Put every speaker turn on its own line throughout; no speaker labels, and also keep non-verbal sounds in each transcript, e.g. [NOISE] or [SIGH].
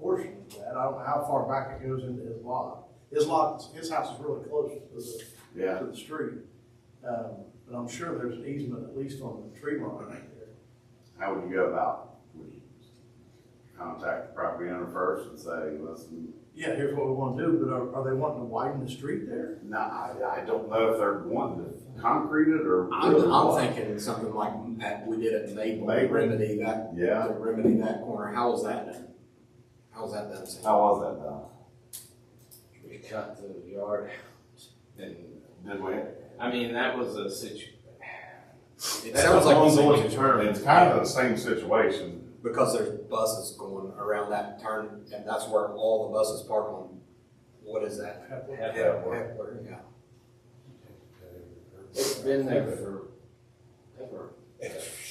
portion of that. I don't know how far back it goes into his lot. His lot, his house is really close to the
Yeah,
to the street. Um, But I'm sure there's an easement at least on the tree line right there.
how would you go about, would you contact the property owner first and say, listen,
Yeah, here's what we want to do, but are, are they wanting to widen the street there?
no, I, I don't know if they're wanting to concrete it or.
I'm, I'm
what."
thinking something like that we did at Maple, to
Maple.
remedy that,
Yeah,
to remedy that corner, how was that done? How was that done, Sam?
how was that done?
We cut the yard out and,
Did we?
I mean, that was a situ-
It sounds like, the same-
It's kind of the same situation.
because there's buses going around that turn, and that's where all the buses park on, what is that?
Half hour.
Heckler, yeah.
It's been there for, ever.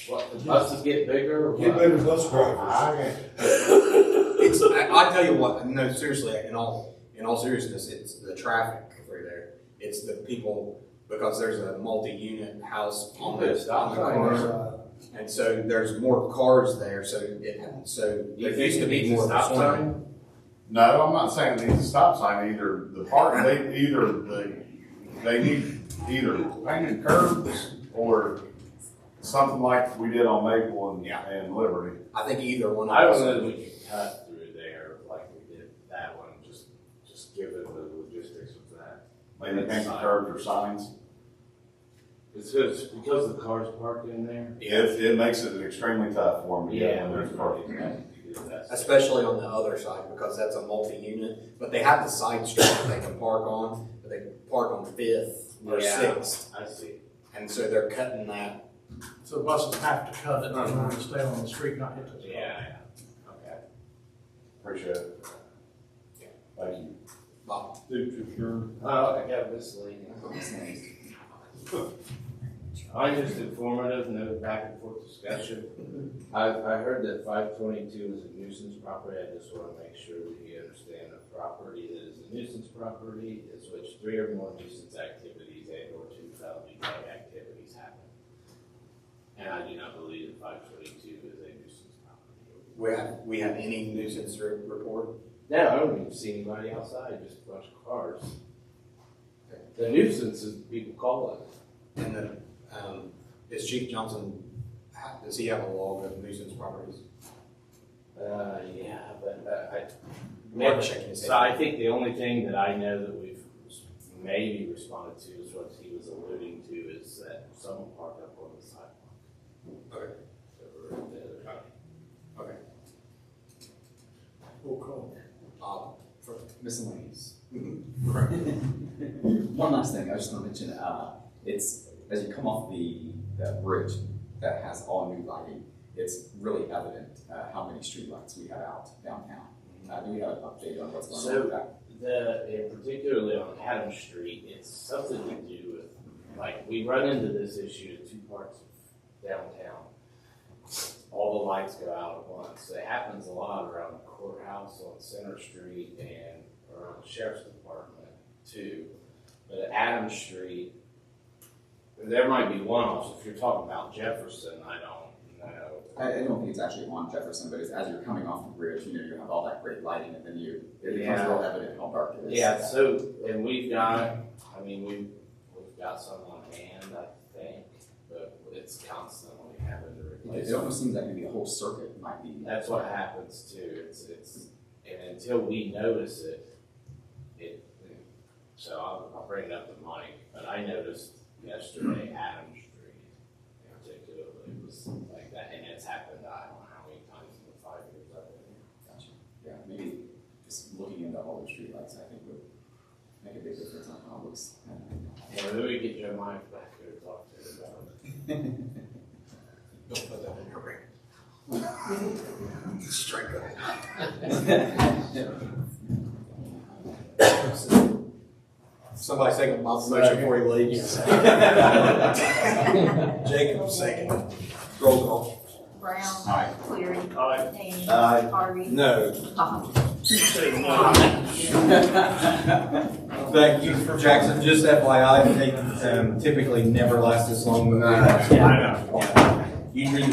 What, the buses get bigger or
Get
what?
better bus drivers.
It's, I, I tell you what, no, seriously, in all, in all seriousness, it's the traffic over there. It's the people, because there's a multi-unit house on
There's
the,
stop
on the
sign
corner. And so there's more cars there, so it, so
Do you
there
think
used to
it
be
needs a
more. of a
stop
swing.
sign?
No, I'm not saying it needs a stop sign either. The part, they, either the, they need either painted curbs or something like we did on Maple and,
Yeah.
and Liberty.
I think either one. of
I don't
those-
know that we could cut through there like we did that one, just, just given the logistics of that.
Maybe painted curbs or signs.
It's because, because the cars parked in there.
It, it makes it extremely tough for them to get in there's parking.
Especially on the other side, because that's a multi-unit, but they have the side street that they can park on, but they can park on Fifth or
Yeah.
Sixth.
I see.
And so they're cutting that.
So buses have to cut it in order to stay on the street, not hit the.
Yeah, okay.
Appreciate it. Thank you.
Bob,
Oh, I got miscellaneous. Mine just informative, no back and forth discussion. I, I heard that five twenty-two is a nuisance property, I just wanna make sure that you understand a property that is a nuisance property is which three or more nuisance activities and or two felony-type activities happen. And I do not believe that five twenty-two is a nuisance property.
we have, we have any nuisance re- report?
No, I don't even see anybody outside, just a bunch of cars. The nuisance is people calling.
And then, um, is Chief Johnson, ha- does he have a log of nuisance properties?
Uh, yeah, but uh, I.
Or checking his
So I
head?
think the only thing that I know that we've maybe responded to is what he was alluding to is that someone parked up on the sidewalk.
Okay.
That were at the other-
We'll call.
Bob, for miscellaneous.
[LAUGHS] One last thing, I just want to mention, uh, it's, as you come off the, that bridge that has all new lighting, it's really evident, uh, how many streetlights we have out downtown.
Mm-hmm.
Uh, do we have an update on what's going on with that?
The, and particularly on Adams Street, it's something to do with, like, we run into this issue in two parts of downtown. All the lights go out at once. It happens a lot around the courthouse on Center Street and around the sheriff's department too. But at Adams Street, there might be one-offs. If you're talking about Jefferson, I don't know.
I, I don't think it's actually on Jefferson, but it's as you're coming off the bridge, you know, you have all that great lighting and then you, it becomes
Yeah.
real evident how dark it is.
Yeah, so, and we've got, I mean, we've, we've got some on hand, I think, but it's constantly having to replace.
It
them.
almost seems like maybe the whole circuit might be.
That's what happens too, it's, it's, and until we notice it, it, so I'll, I'll bring it up to Mike, but I noticed yesterday Adam Street in particular, it was like that, and it's happened, I don't know how many times in the five years I've been here.
Gotcha. Yeah, maybe just looking into all the streetlights, I think would make a big difference on how it looks.
Yeah, maybe we get Jeremiah back here to talk to him about it.
Don't put that in your ring. [LAUGHS] Strike that. Somebody second Bob's motion before he leaves. [LAUGHS] Jacob second. Roll call.
Brown.
Aye.
Cleary.
Aye.
Hany.
Aye.
Harvey.
No,
Hawk.
[LAUGHS]
thank you for Jackson. Just FYI, they um, typically never last this long.
I
Usually